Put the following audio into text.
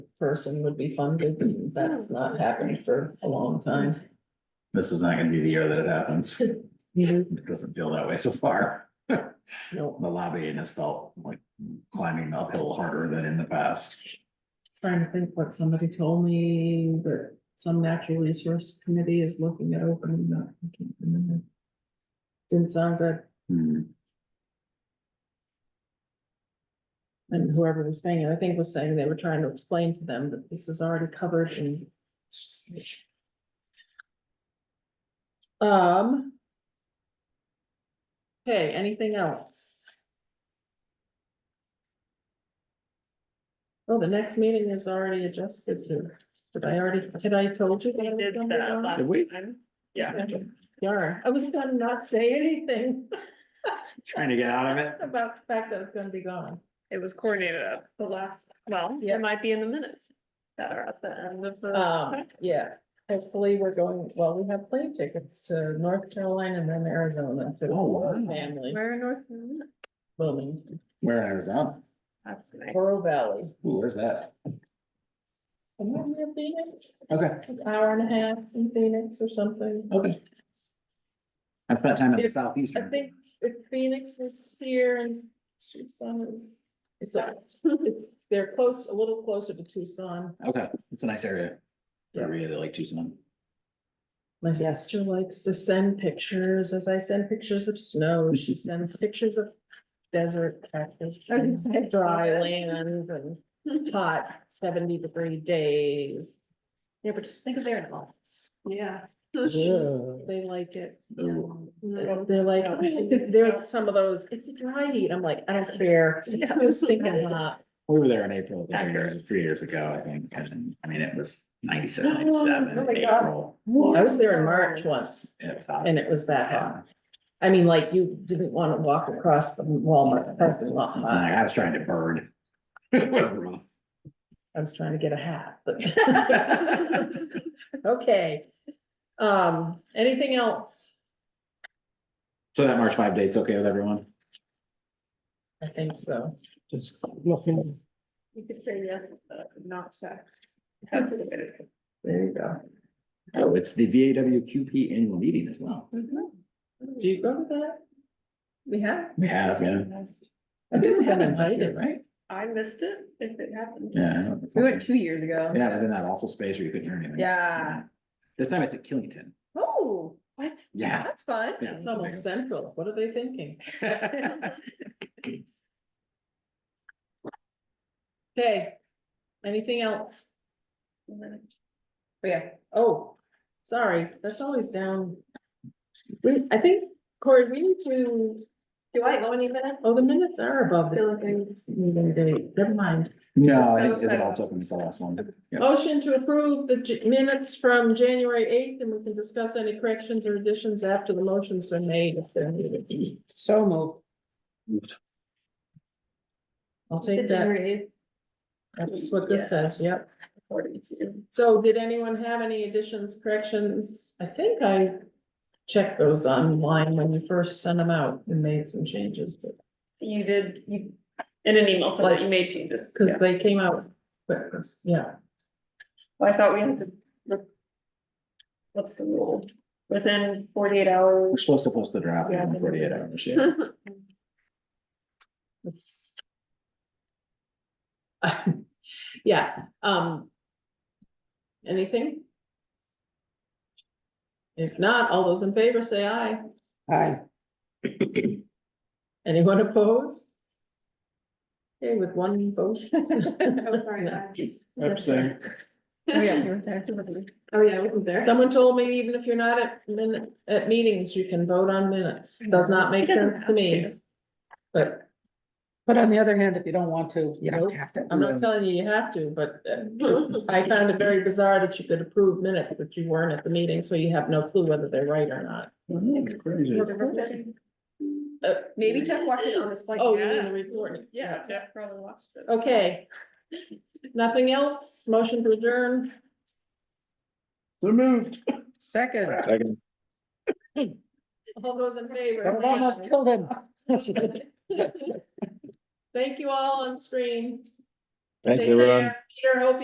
person would be funded, and that's not happened for a long time. This is not gonna be the year that it happens. No, It doesn't feel that way so far. The I'm lobbying has felt like climbing uphill harder than in the past. trying to think what somebody told me, that some natural resource committee is looking at opening that, I can't remember. Didn't sound good, Hmm, and whoever was saying it, I think was saying they were trying to explain to them that this is already covered in. Um. Okay, anything else? Oh, the next meeting is already adjusted to, did I already, did I told you? that I We was did gonna be that on? Did we? last time. Yeah. Darn, I was gonna not say anything Trying to get out of it. about the fact that I was gonna be gone. It was coordinated up the last, well, Yeah. it might be in the minutes that are at the end of the. Um, yeah, hopefully we're going, well, we have plane tickets to North Carolina and then Arizona to Oh, wow. visit family, Where in North Carolina? Wilmington, Where in Arizona? That's nice. Oro Valley. Ooh, where's that? And then near Phoenix, Okay, an hour and a half in Phoenix or something. okay. I spent time in the If- I southeastern. think if Phoenix is here and Tucson is, it's, it's, they're close, a little closer to Tucson. Okay, it's a nice area. I Yeah. really like Tucson. My sister likes to send pictures, as I send pictures of snow, she sends pictures of desert cactus Okay, and so I saw dry that. land and hot seventy degree days. Yeah, but just think of their lives. Yeah. They like it. Ooh. They're like, oh, "Oh, they're some of those, it's a dry heat. I'm like, I don't care. It's so stinking hot. We were there in April, I think it was Accurate. three years ago, I think, and I mean, it was ninety-six, Oh, ninety-seven oh in my God. April. I was there in March once It was hot. and it was that hot. Yeah. I mean, like you didn't want to walk across the Walmart parking lot. And I I was trying to bird. It was rough. I was trying to get a hat, but. Okay. Um, anything else? So that March five date's okay with everyone? I think so. Just looking. You could say yes, but not check. That's the way to go. There you go. Oh, it's the V A W Q P annual meeting as well. Mm-hmm. Do you go to that? We have? We have, yeah. I didn't have Haven't been invited. here, Right? I missed it if it happened. Yeah. I don't We went think- two years ago. Yeah, it was in that awful space where you couldn't hear anything. Yeah. This time it's at Killington. Oh, what? Yeah. That's fun. Yeah. It's almost central. What are they thinking? Okay. Anything else? Yeah. Oh, sorry. That's always down. We, I think, Corey, we need to, Do I owe any minutes? oh, the minutes are above Feel the like I'm- meeting date. Never mind. No, I think Isabel took him to the last one. Yep. Motion to approve the j- minutes from January eighth, and we can discuss any corrections or additions after the motion's been made if they're needed. So moved. I'll take that. January eighth, That's what this says, yep. forty-two. So did anyone have any additions, corrections? I think I checked those online when you first sent them out and made some changes, but, You did, you, in an email, so that you made changes. because they came out quick, yeah. Well, I thought we had to. re- What's the rule? Within forty-eight hours. Oh, We're supposed to post the draft Yeah, I in think- forty-eight hours, yeah. It's- Yeah, um. Anything? If not, all those in favor say aye. Hi. Anyone opposed? Okay, with one vote. Oh, sorry. No. I- Abstain. Oh, yeah, you were there. It wasn't- Oh, yeah, I wasn't there. Someone told me even if you're not at minute, at meetings, you can vote on minutes. Does not make sense to me. But But on the other hand, if you don't want to, you Nope. don't have to. I'm not telling you you have to, but uh, I found it very bizarre that you could approve minutes that you weren't at the meeting, so you have no clue whether they're right or not. Uh, Maybe Jeff watched it on his flight. Oh, you mean the recording? Yeah, Jeff probably watched it. Okay. Nothing else? Motion to adjourn? They're moved. Second, All those in favor? but it say almost aye. killed him. Thank you all on screen. Thanks, Take everyone. care. Peter, hope